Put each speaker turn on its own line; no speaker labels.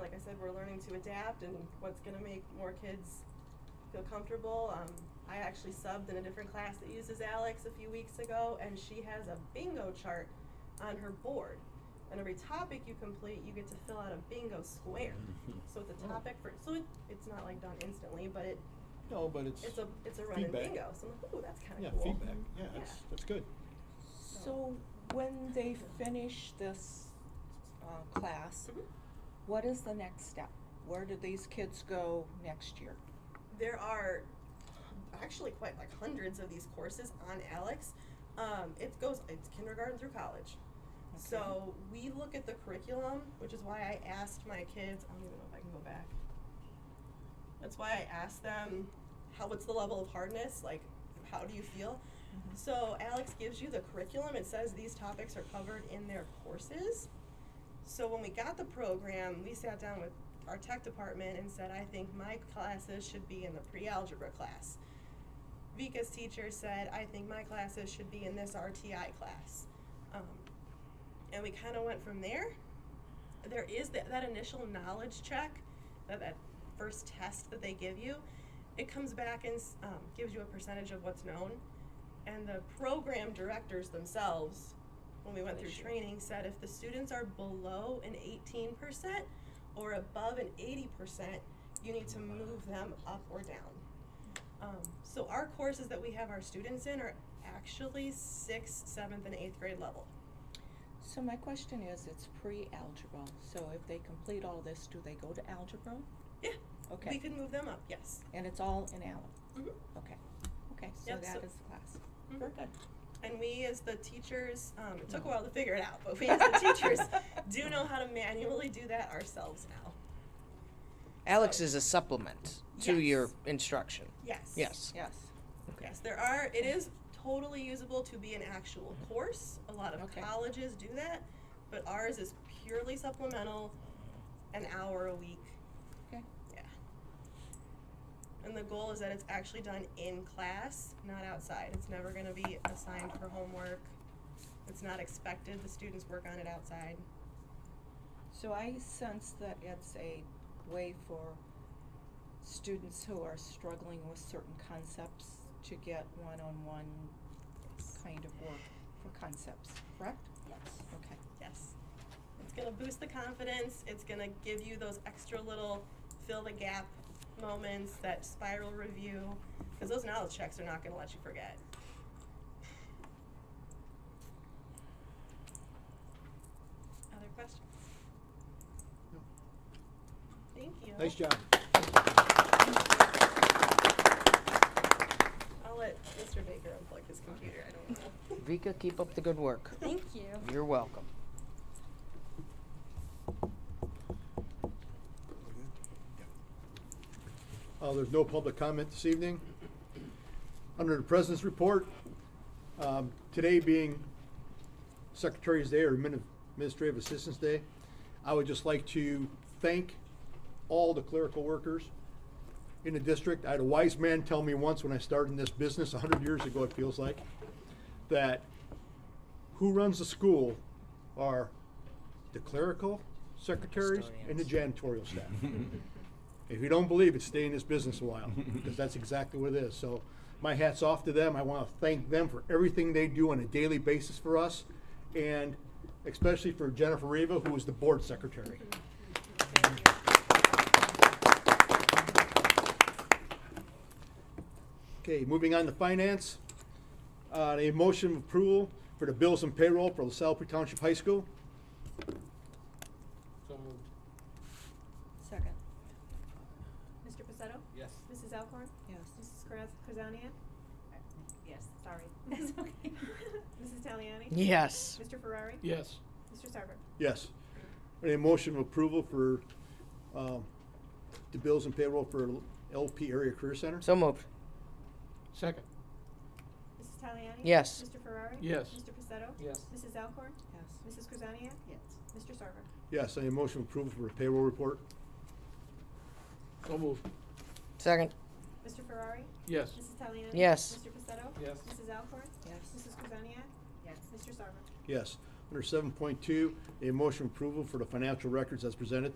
like I said, we're learning to adapt and what's gonna make more kids feel comfortable. Um, I actually subbed in a different class that uses Alex a few weeks ago, and she has a bingo chart on her board. And every topic you complete, you get to fill out a bingo square. So it's a
Oh.
topic for so it, it's not like done instantly, but it
No, but it's.
it's a it's a run and
feedback.
bingo. So I'm like, ooh, that's kind of
Yeah,
cool.
feedback, yeah, that's, that's good.
So when they finish this uh, class,
Mhm.
what is the next step? Where do these kids go next year?
there are actually quite like hundreds of these courses on Alex. Um, it goes it's kindergarten through college. So we look at the curriculum, which is why I asked my kids. I don't even know if I can go back. That's why I asked them, how what's the level of hardness? Like, how do you feel?
Mhm.
So Alex gives you the curriculum. It says these topics are covered in their courses. So when we got the program, we sat down with our tech department and said, I think my classes should be in the pre-algebra class. Vika's teacher said, I think my classes should be in this RTI class. Um, and we kind of went from there. There is that, that initial knowledge check, that, that first test that they give you. It comes back and s- um, gives you a percentage of what's known. And the program directors themselves, when we went through
This year.
training, said if the students are below an 18% or above an 80%, you need to move them up or down. Um, so our courses that we have our students in are actually sixth, seventh, and eighth grade level.
So my question is, it's pre-algebra, so if they complete all this, do they go to algebra?
Yeah.
Okay. Mm-hmm.
We can move them up, yes.
And it's all in algebra?
Mhm.
Okay, okay, so
Yep, so-
that is the class.
Mhm.
Very good.
And we, as the teachers, um, it took a while to figure it out, but we, as the teachers, do know how to manually do that ourselves now.
Alex is a supplement to your
Yes.
instruction.
Yes.
Yes.
Yes,
Okay.
Yes, there are, it is totally usable to be an actual course. A lot of
Okay.
colleges do that, but ours is purely supplemental, an hour a week.
okay,
Yeah. And the goal is that it's actually done in class, not outside. It's never going to be assigned for homework. It's not expected. The students work on it outside.
so I sense that it's a way for students who are struggling with certain concepts to get one-on-one kind of work for concepts, correct?
Yes.
Okay.
Yes. It's going to boost the confidence. It's going to give you those extra little fill the gap moments, that spiral review, because those knowledge checks are not going to let you forget. Other questions? Thank you.
Nice job.
I'll let Mr. Baker unplug his computer. I don't know.
Vika, keep up the good work.
Thank you.
You're welcome.
Uh, there's no public comment this evening. Under the President's report, um, today being Secretary's Day or Admin- Administrative Assistance Day, I would just like to thank all the clerical workers in the district. I had a wise man tell me once when I started in this business, hundred years ago it feels like, that who runs the school are the clerical secretaries and the janitorial staff. If you don't believe it, stay in this business a while, because that's exactly what it is. So my hat's off to them. I want to thank them for everything they do on a daily basis for us, and especially for Jennifer Riva, who is the board secretary. Okay, moving on to finance. Uh, a motion of approval for the bills and payroll for LaSalle Township High School.
So moved.
Second.
Mr. Pacetto?
Yes.
Mrs. Alcorn?
Yes.
Mrs. Kraz- Krasanian? Yes. Sorry. That's okay. Mrs. Taliani?
Yes.
Mr. Ferrari?
Yes.
Mr. Sarver?
Yes. A motion of approval for um, the bills and payroll for LP Area Career Center?
So moved.
Second.
Mrs. Taliani?
Yes.
Mr. Ferrari?
Yes.
Mr. Pacetto?
Yes.
Mrs. Alcorn?
Yes.
Mrs. Krasanian?
Yes.
Mr. Sarver?
Yes, a motion of approval for the payroll report?
So moved.
Second.
Mr. Ferrari?
Yes.
Mrs. Taliani?
Yes.
Mr. Pacetto?
Yes.
Mrs. Alcorn?
Yes.
Mrs. Krasanian? Yes. Mr. Sarver?
Yes. Under seven point two, a motion of approval for the financial records as presented?